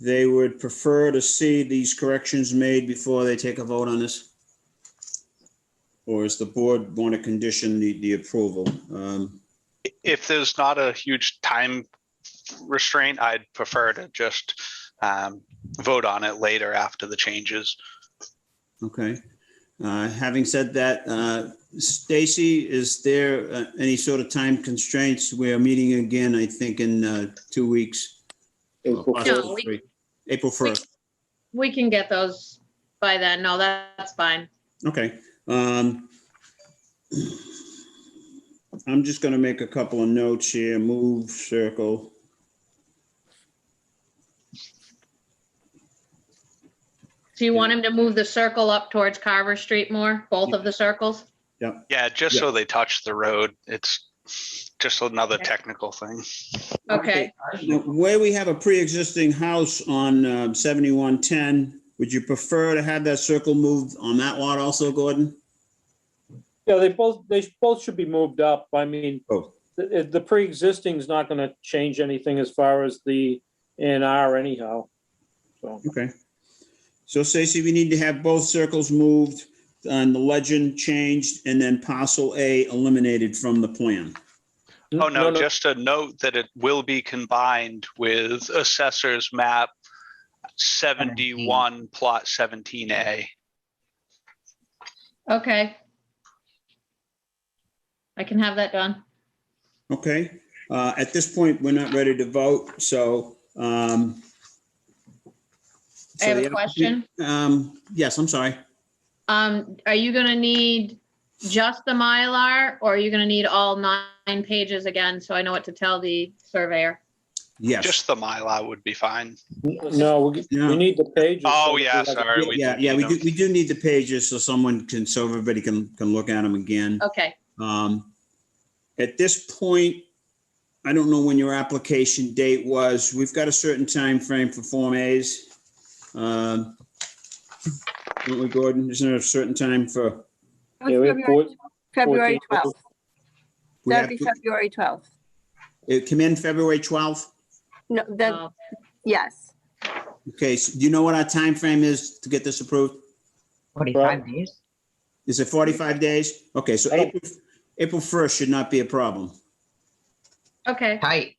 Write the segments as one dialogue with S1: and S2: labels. S1: they would prefer to see these corrections made before they take a vote on this? Or is the board want to condition the, the approval? Um,
S2: If there's not a huge time restraint, I'd prefer to just um, vote on it later after the changes.
S1: Okay. Uh, Having said that, uh, Stacy, is there uh, any sort of time constraints? We are meeting again, I think, in uh, two weeks.
S3: April
S1: Possibly
S3: first.
S4: we-
S1: three. April
S4: We-
S1: 1st.
S4: We can get those by then. No, that's fine.
S1: Okay. um, I'm just going to make a couple of notes here. Move, circle.
S4: So you want him to move the circle up towards Carver Street more, both of the circles?
S2: Yeah, just so they touch the road. It's just another technical thing.
S4: Okay,
S1: Now, Where we have a pre-existing house on um, 7110, would you prefer to have that circle moved on that lot also, Gordon?
S3: Yeah, they both, they sh- both should be moved up. I mean,
S1: Both.
S3: the, the pre-existing is not gonna change anything as far as the A and R anyhow. So,
S1: Okay. So Stacy, we need to have both circles moved and the legend changed and then parcel A eliminated from the plan.
S2: Oh, no, just a note that it will be combined with assessor's map 71 plot 17A.
S4: okay. I can have that done.
S1: Okay, uh, at this point, we're not ready to vote, so, um.
S4: I
S1: so
S4: have
S1: the
S4: a question.
S1: applica- Um, yes, I'm sorry.
S4: Um, are you gonna need just the Mylar or are you gonna need all nine pages again? So I know what to tell the surveyor.
S1: Yes.
S2: Just the Mylar would be fine.
S3: No, we,
S1: Yeah.
S3: we need the pages.
S2: Oh, yeah, sorry. we
S1: Yeah,
S2: do
S1: yeah,
S2: need
S1: we
S2: them.
S1: do, we do need the pages so someone can, so everybody can, can look at them again.
S4: Okay,
S1: Um, At this point, I don't know when your application date was. We've got a certain time frame for Form As. Um, Don't we, Gordon? Isn't there a certain time for?
S5: That was
S3: Yeah, we have
S5: February- February
S3: 14th.
S5: 12th.
S1: we
S5: That'd
S1: have
S5: be
S1: to-
S5: February 12th.
S1: It came in February 12th?
S5: No, that,
S4: so
S5: yes.
S1: Okay, so do you know what our time frame is to get this approved?
S3: Right.
S6: 45 days?
S1: Is it 45 days? Okay, so
S3: I don't-
S1: April, April 1st should not be a problem.
S4: okay,
S6: Tight.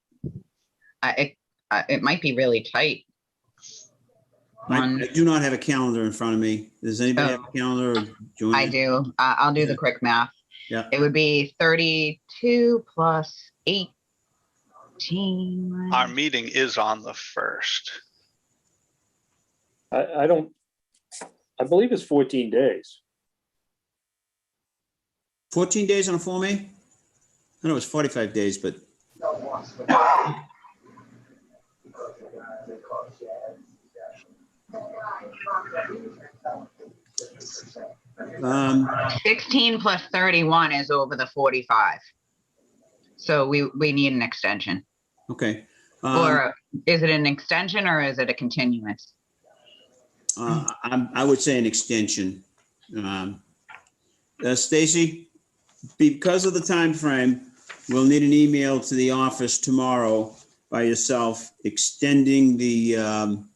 S6: I, it, I- it might be really tight.
S1: I
S6: On- Oh,
S1: I do not have a calendar in front of me. Does anybody have a calendar? or join
S6: I
S1: in?
S6: do, I, I'll do the quick math.
S1: Yeah.
S6: It would be 32 plus 18.
S2: Our meeting is on the first.
S3: I, I don't, I believe it's fourteen days.
S1: 14 days on a Form A? I know it was 45 days, but um,
S6: 16 plus 31 is over the 45. So we, we need an extension.
S1: okay. Um,
S6: Or is it an extension or is it a continuance?
S1: uh, I, I would say an extension. Um, uh, Stacy, because of the time frame, we'll need an email to the office tomorrow by yourself extending the, um,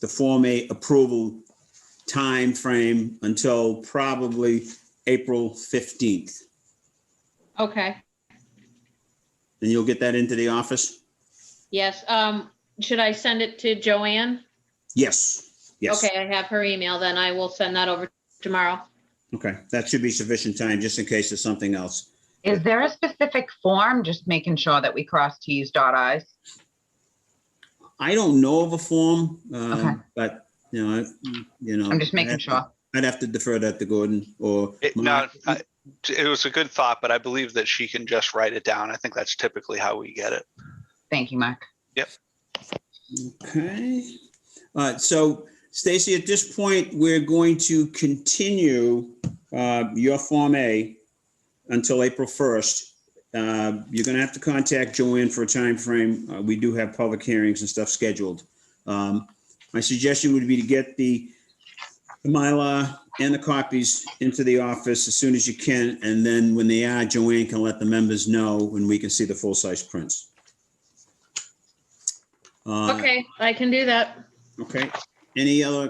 S1: the Form A approval time frame until probably April 15th.
S4: okay.
S1: And you'll get that into the office?
S4: Yes, um, should I send it to Joanne?
S1: Yes, yes.
S4: Okay, I have her email, then I will send that over tomorrow.
S1: Okay, that should be sufficient time, just in case there's something else.
S6: Is there a specific form? Just making sure that we cross Ts dot Is.
S1: I don't know of a form,
S6: Okay.
S1: um, but, you know, I- you know.
S6: I'm just
S1: I'd
S6: making
S1: have to-
S6: sure.
S1: I'd have to defer that to Gordon or.
S2: It, no, uh,
S1: Mark.
S2: I- it was a good thought, but I believe that she can just write it down. I think that's typically how we get it.
S6: Thank you, Mark.
S1: Okay. All right, so Stacy, at this point, we're going to continue uh, your Form A until April 1st. Uh, You're going to have to contact Joanne for a timeframe. Uh, We do have public hearings and stuff scheduled. Um, My suggestion would be to get the the Mylar and the copies into the office as soon as you can, and then when they are, Joanne can let the members know when we can see the full-size prints. Uh,
S4: Okay, I can do that.
S1: Okay. Any other